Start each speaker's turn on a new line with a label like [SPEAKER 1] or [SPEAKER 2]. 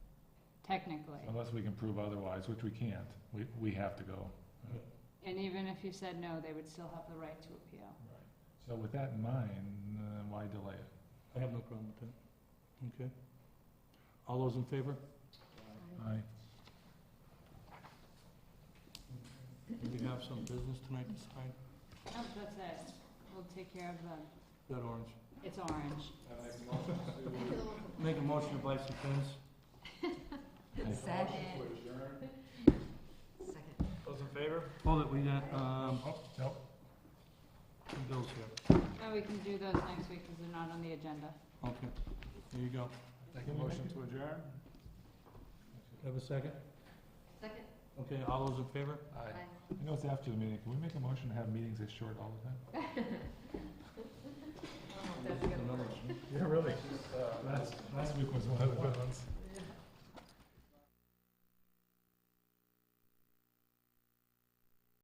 [SPEAKER 1] technically.
[SPEAKER 2] unless we can prove otherwise, which we can't. We, we have to go.
[SPEAKER 1] And even if you said no, they would still have the right to appeal.
[SPEAKER 2] So with that in mind, uh, why delay it?
[SPEAKER 3] I have no problem with that. Okay. All those in favor?
[SPEAKER 2] Aye.
[SPEAKER 3] Do we have some business tonight to sign?
[SPEAKER 1] Nope, that's it. We'll take care of the,
[SPEAKER 3] That orange.
[SPEAKER 1] it's orange.
[SPEAKER 3] Make a motion to buy some pens.
[SPEAKER 4] Second. Second.
[SPEAKER 3] Those in favor? Hold it, we got, um,
[SPEAKER 2] Oh, Nope,
[SPEAKER 3] some bills here.
[SPEAKER 1] Oh, we can do those next week because they're not on the agenda.
[SPEAKER 3] Okay, there you go.
[SPEAKER 2] Make a motion to adjourn?
[SPEAKER 3] Have a second?
[SPEAKER 4] Second.
[SPEAKER 3] Okay, all those in favor?
[SPEAKER 4] Aye.
[SPEAKER 2] You know, it's after the meeting. Can we make a motion to have meetings this short all the time?
[SPEAKER 4] Oh, that's a good one.
[SPEAKER 2] Yeah, really. Last, last week was one of the good ones.